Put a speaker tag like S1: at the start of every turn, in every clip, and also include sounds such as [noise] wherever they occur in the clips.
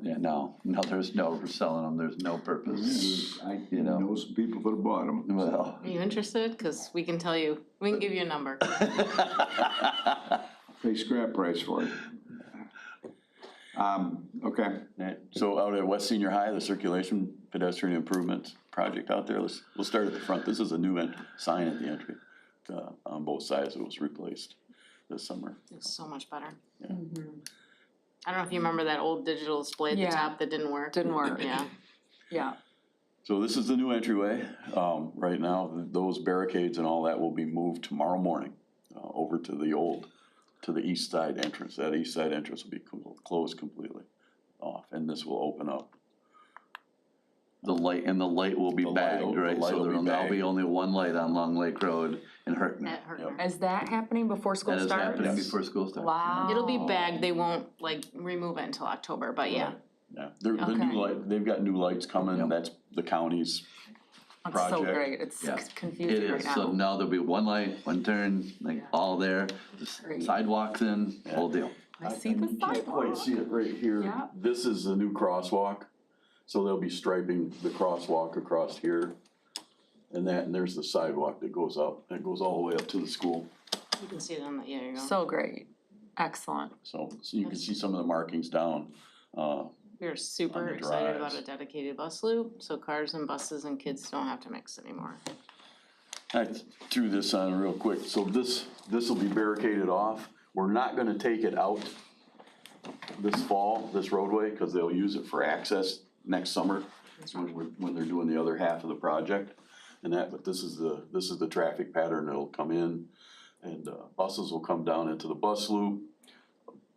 S1: Yeah, no, no, there's no reselling them, there's no purpose.
S2: I
S1: You know.
S2: know some people for the bottom.
S3: [laughs]
S1: Well.
S4: Are you interested? Cause we can tell you, we can give you a number.
S2: Pay scrap price for it. Um, okay,
S3: Alright, So out at West Senior High, the circulation pedestrian improvement project out there, let's, we'll start at the front. This is a new en- sign at the entry, uh, on both sides. It was replaced this summer.
S4: It's so much better.
S3: Yeah.
S4: Mm-hmm. I don't know if you remember that old digital display at the
S5: Yeah.
S4: top that didn't work.
S5: Didn't work,
S4: Yeah,
S5: yeah.
S3: So this is the new entryway. Um, right now, th- those barricades and all that will be moved tomorrow morning uh, over to the old, to the east side entrance. That east side entrance will be clo- closed completely off, and this will open up.
S1: The light, and the light will be
S3: The light will-
S1: bagged,
S3: the
S1: right,
S3: light
S1: so
S3: will be
S1: there'll now be
S3: bagged.
S1: only one light on Long Lake Road in Hertner.
S4: that hurt. her.
S5: Is that happening before school
S1: That is
S5: starts?
S1: happening
S3: Yes.
S1: before school starts.
S5: Wow.
S4: It'll be bagged, they won't like remove it until October, but yeah.
S3: Yeah, they're, the
S5: Okay.
S3: new light, they've got new lights coming.
S1: Yep.
S3: That's the county's
S5: It's so
S3: project.
S5: great, it's
S1: Yeah.
S5: c-
S1: It
S5: confusing right
S1: is, so
S5: now.
S1: now there'll be one light, one turn, like all there, the s-
S5: Great.
S1: sidewalks in, whole deal.
S5: I see the
S3: You can't quite
S5: sidewalk.
S3: see it right here.
S5: Yeah.
S3: This is the new crosswalk, so they'll be striping the crosswalk across here. And that, and there's the sidewalk that goes up, and it goes all the way up to the school,
S4: You can see it on the, yeah, you go.
S5: So great, excellent.
S3: so, so you can see some of the markings down. Uh,
S4: We're
S3: on
S4: super
S3: the
S4: excited about
S3: drives.
S4: a dedicated bus loop, so cars and buses and kids don't have to mix anymore.
S3: I threw this on real quick, so this, this will be barricaded off, we're not gonna take it out this fall, this roadway, cause they'll use it for access next summer, That's when we're, when they're doing the other half of the project. And that, but this is the, this is the traffic pattern that'll come in, and uh, buses will come down into the bus loop.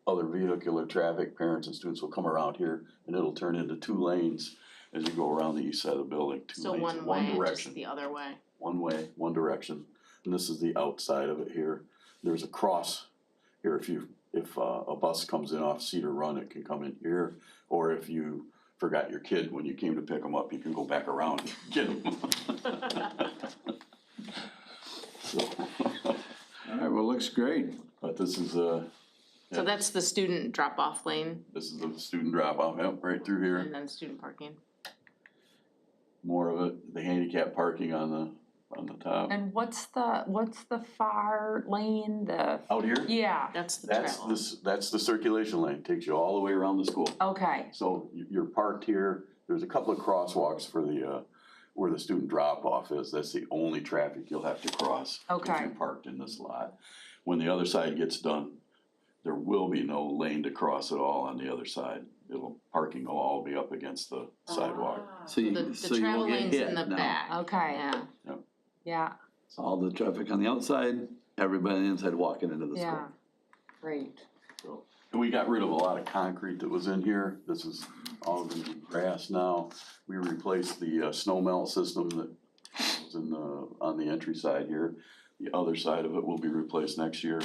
S3: Other vehicular traffic, parents and students will come around here, and it'll turn into two lanes as you go around the east side of the building, two
S4: So
S3: lanes,
S4: one
S3: one
S4: way,
S3: direction
S4: just the other way.
S3: one way, one direction, and this is the outside of it here. There's a cross here, if you, if uh, a bus comes in off Cedar Run, it can come in here, or if you forgot your kid when you came to pick them up, you can go back around and [laughs] get them. So,
S2: all right, well, looks great.
S3: but this is uh
S4: So
S3: Yeah.
S4: that's the student drop-off lane
S3: this is the student drop off, yep, right through here.
S4: and then student parking.
S3: More of it, the handicap parking on the, on the top.
S5: And what's the, what's the far lane, the,
S3: Out here,
S5: yeah,
S4: That's the
S3: that's
S4: travel.
S3: this, that's the circulation lane, takes you all the way around the school.
S5: okay,
S3: So you- you're parked here, there's a couple of crosswalks for the, uh, where the student drop-off is, that's the only traffic you'll have to cross. If
S5: Okay.
S3: you parked in this lot. When the other side gets done, there will be no lane to cross at all on the other side. It'll, parking will all be up against the sidewalk.
S1: So
S4: Ah. The,
S1: you, so
S4: the
S1: you
S4: travel
S1: will get
S4: lanes in
S1: hit
S4: the
S1: now.
S4: back.
S5: okay,
S4: Yeah,
S5: yeah,
S1: All the traffic on the outside, everybody on the inside walking into the
S5: yeah,
S1: school.
S5: great.
S3: And we got rid of a lot of concrete that was in here, this is all gonna be grass now. We replaced the uh, snow melt system that was in the, on the entry side here. The other side of it will be replaced next year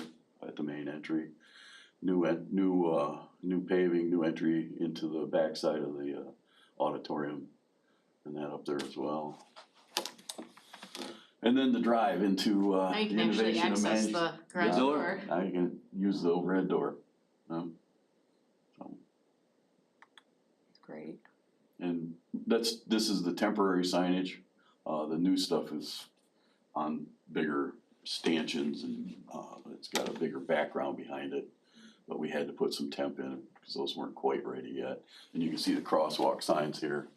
S3: at the main entry. New, en- new, uh, new paving, new entry into the backside of the uh, auditorium and that up there as well. And then the drive into uh,
S4: now
S3: the
S4: you can actually
S3: innovation of
S4: access
S3: management.
S4: the garage
S3: Yeah.
S4: door.
S3: Now you can use the overhead door. Um,
S5: It's Great,
S3: And that's, this is the temporary signage. Uh, the new stuff is on bigger stanchions and, uh, it's got a bigger background behind it. But we had to put some temp in because those weren't quite ready yet. And you can see the crosswalk signs here.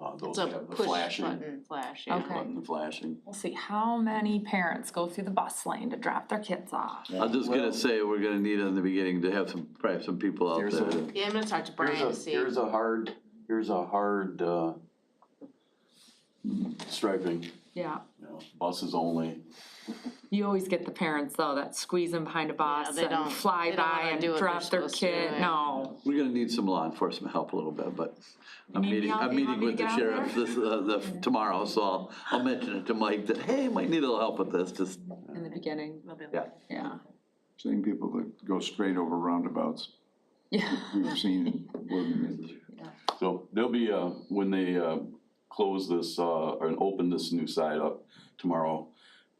S3: Uh, those
S4: It's a
S3: have the
S4: push
S3: flashing.
S4: button flash, yeah.
S3: push
S5: Okay.
S3: Button, the flashing.
S5: we'll see how many parents go through the bus lane to drop their kids off.
S1: I'm just
S3: Well-
S1: gonna say, we're gonna need in the beginning to have some, probably have some people out
S3: Here's
S1: there.
S3: a-
S1: to-
S4: Yeah, I'm gonna talk to Brian to
S3: Here's a,
S4: see.
S3: here's a hard, here's a hard, uh, striping,
S5: Yeah,
S3: you know, buses only.
S5: you always get the parents though, that squeeze in behind a bus
S4: they don't-
S5: and fly
S4: they don't
S5: by
S4: wanna
S5: and
S4: do what they're
S5: drop their
S4: supposed to do,
S5: kid,
S4: right?
S5: no.
S1: We're gonna need some law enforcement help a little bit, but I'm
S5: need me
S1: meeting,
S5: out-
S1: I'm
S5: you want
S1: meeting
S5: me
S1: with
S5: to
S1: the
S5: get out
S1: sheriff
S5: there?
S1: this, uh, the, tomorrow, so I'll, I'll mention it to Mike that, hey, might need a little help with this, just,
S5: In the beginning,
S4: They'll be like,
S5: yeah,
S1: yeah.
S2: Same people that go straight over roundabouts,
S5: yeah. [laughs]
S2: we've seen in Bloomington.
S3: So there'll be, uh, when they, uh, close this, uh, or open this new side up tomorrow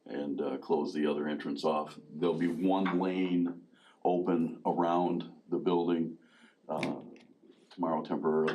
S3: and, uh, close the other entrance off, there'll be one lane open around the building, uh, tomorrow temporarily.